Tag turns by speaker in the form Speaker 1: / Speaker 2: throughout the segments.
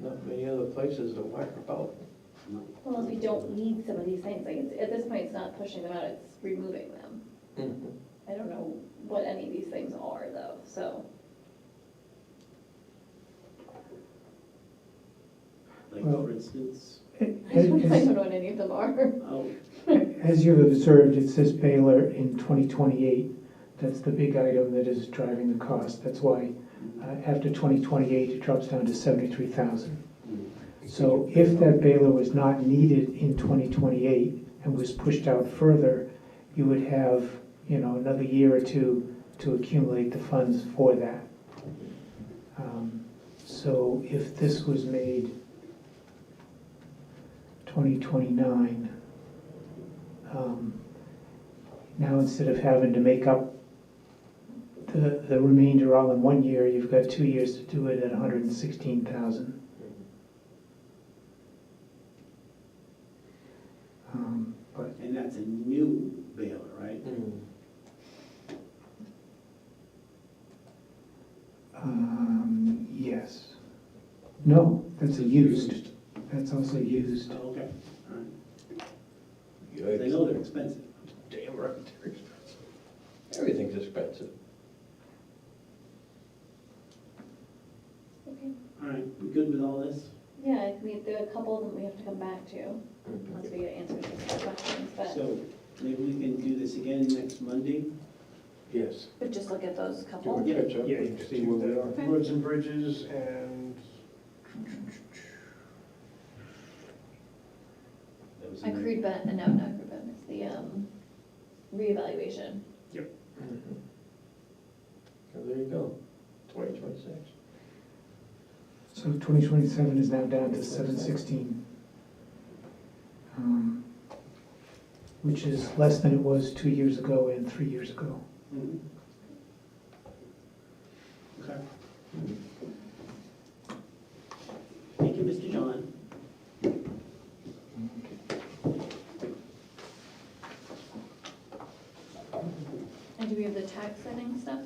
Speaker 1: not many other places to whack about.
Speaker 2: Well, as we don't need some of these things, like, it's- at this point, it's not pushing them out, it's removing them.
Speaker 1: Mm-hmm.
Speaker 2: I don't know what any of these things are though, so.
Speaker 3: Like,
Speaker 4: Well-
Speaker 3: for instance,
Speaker 2: I don't
Speaker 4: As
Speaker 2: know what any of them are.
Speaker 3: oh,
Speaker 4: as you've observed, it says Baylor in 2028. That's the big item that is driving the cost. That's why uh, after 2028, it drops down to 73,000. So if that Baylor was not needed in 2028 and was pushed out further, you would have, you know, another year or two to accumulate the funds for that. Um, So if this was made 2029, um, now instead of having to make up the, the remainder all in one year, you've got two years to do it at 116,000. Um, But
Speaker 3: and that's a new Baylor, right?
Speaker 4: Um, yes. No, that's a used, that's also used.
Speaker 3: Oh, Okay, all right. They
Speaker 1: Yikes.
Speaker 3: know they're expensive.
Speaker 1: Damn right, they're expensive. Everything's expensive.
Speaker 2: Okay.
Speaker 3: All right, we good with all this?
Speaker 2: Yeah, I think there are a couple that we have to come back to,
Speaker 1: Mm-hmm.
Speaker 2: once we get answers to the questions, but.
Speaker 3: So maybe we can do this again next Monday?
Speaker 1: Yes.
Speaker 2: But just look at those
Speaker 1: Do we
Speaker 3: Yeah.
Speaker 1: catch up
Speaker 4: Yeah,
Speaker 1: and
Speaker 4: you
Speaker 1: see
Speaker 4: do
Speaker 1: where we
Speaker 4: that.
Speaker 1: are?
Speaker 2: Okay.
Speaker 5: Roads and bridges and
Speaker 3: That was in
Speaker 2: Accrued ben, uh, no, not accrued ben, it's the, um, reevaluation.
Speaker 1: So Mm-hmm. there you go, twenty twenty-six.
Speaker 4: So twenty twenty-seven is now down to seven sixteen. Um, Which is less than it was two years ago and three years ago.
Speaker 3: the- Mhm. Okay. Thank you, Mr. John.
Speaker 2: And do we have the tax setting stuff?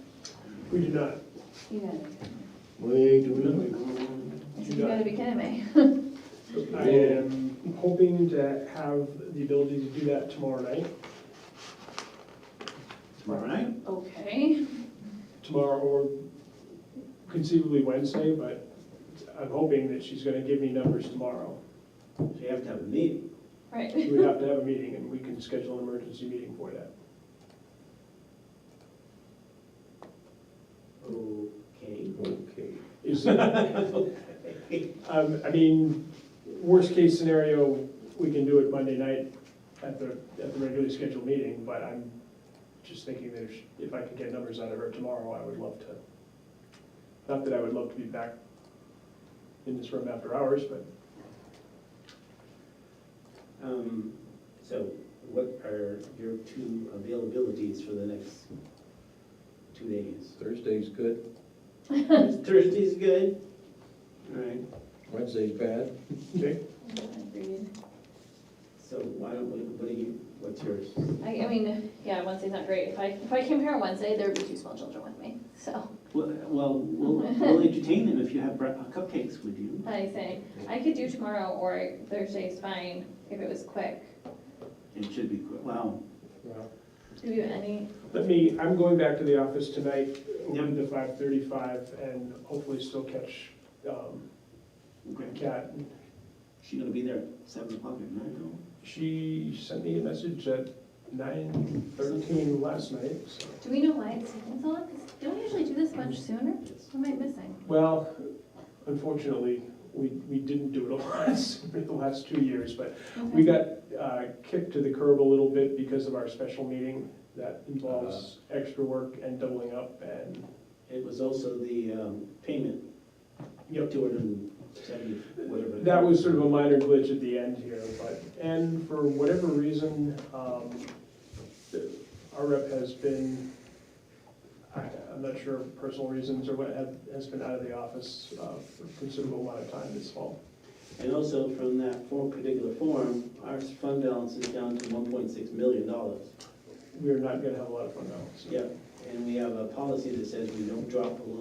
Speaker 5: we do not.
Speaker 2: You got it.
Speaker 1: We do
Speaker 2: I
Speaker 5: You
Speaker 2: said, you
Speaker 5: got
Speaker 2: gotta be kidding me.
Speaker 5: I am hoping to have the ability to do that tomorrow night,
Speaker 3: Tomorrow night?
Speaker 2: Okay,
Speaker 5: tomorrow or conceivably Wednesday, but I'm hoping that she's gonna give me numbers tomorrow.
Speaker 3: So you have to have a meeting.
Speaker 2: right.
Speaker 5: We would have to have a meeting and we can schedule an emergency meeting for that.
Speaker 3: Okay.
Speaker 1: not. Okay.
Speaker 5: Is, um, I mean, worst case scenario, we can do it Monday night at the, at the regularly scheduled meeting, but I'm just thinking that if, she- if I could get numbers out of her tomorrow, I would love to. Not that I would love to be back in this room after hours, but
Speaker 3: Um, So what are your two availabilities for the next two days?
Speaker 1: Thursday's good,
Speaker 3: Thursday's good? All right,
Speaker 1: Wednesday's bad.
Speaker 2: Agreed.
Speaker 3: so why don't we, what are you, what's yours?
Speaker 2: I, I mean, yeah, Wednesday's not great. If I, if I came here on Wednesday, there would be two small children with me, so.
Speaker 3: Well, Well, we'll we'll entertain them if you have bre- cupcakes with you.
Speaker 2: I say, I could do tomorrow or Thursday's fine, if it was quick.
Speaker 3: It should be, good. wow.
Speaker 2: Do you have any,
Speaker 5: let me, I'm going back to the office tonight,
Speaker 3: Yep.
Speaker 5: with the five thirty-five, and hopefully still catch, um,
Speaker 3: Okay.
Speaker 5: Kat.
Speaker 3: She gonna be there at seven o'clock at night, no?
Speaker 5: She sent me a message at nine thirteen last night, so.
Speaker 2: do we know why it's taking so long? 'Cause don't we usually do this much sooner?
Speaker 3: Yes.
Speaker 2: What am I missing?
Speaker 5: Well, unfortunately, we, we didn't do it a lot in the last two years, but we got uh, kicked to the curb a little bit because of our special meeting that involves extra work and doubling up and,
Speaker 3: It was also the um, payment,
Speaker 5: yep.
Speaker 3: two hundred and seventy, whatever.
Speaker 5: That was sort of a minor glitch at the end here, but, and for whatever reason, um, the- our rep has been, I- I'm not sure of personal reasons or what, have- has been out of the office uh, for a considerable amount of time this fall.
Speaker 3: And also from that form, particular form, our fund balance is down to one point six million dollars.
Speaker 5: We're not gonna have a lot of fun now, so.
Speaker 3: Yeah, and we have a policy that says we don't drop below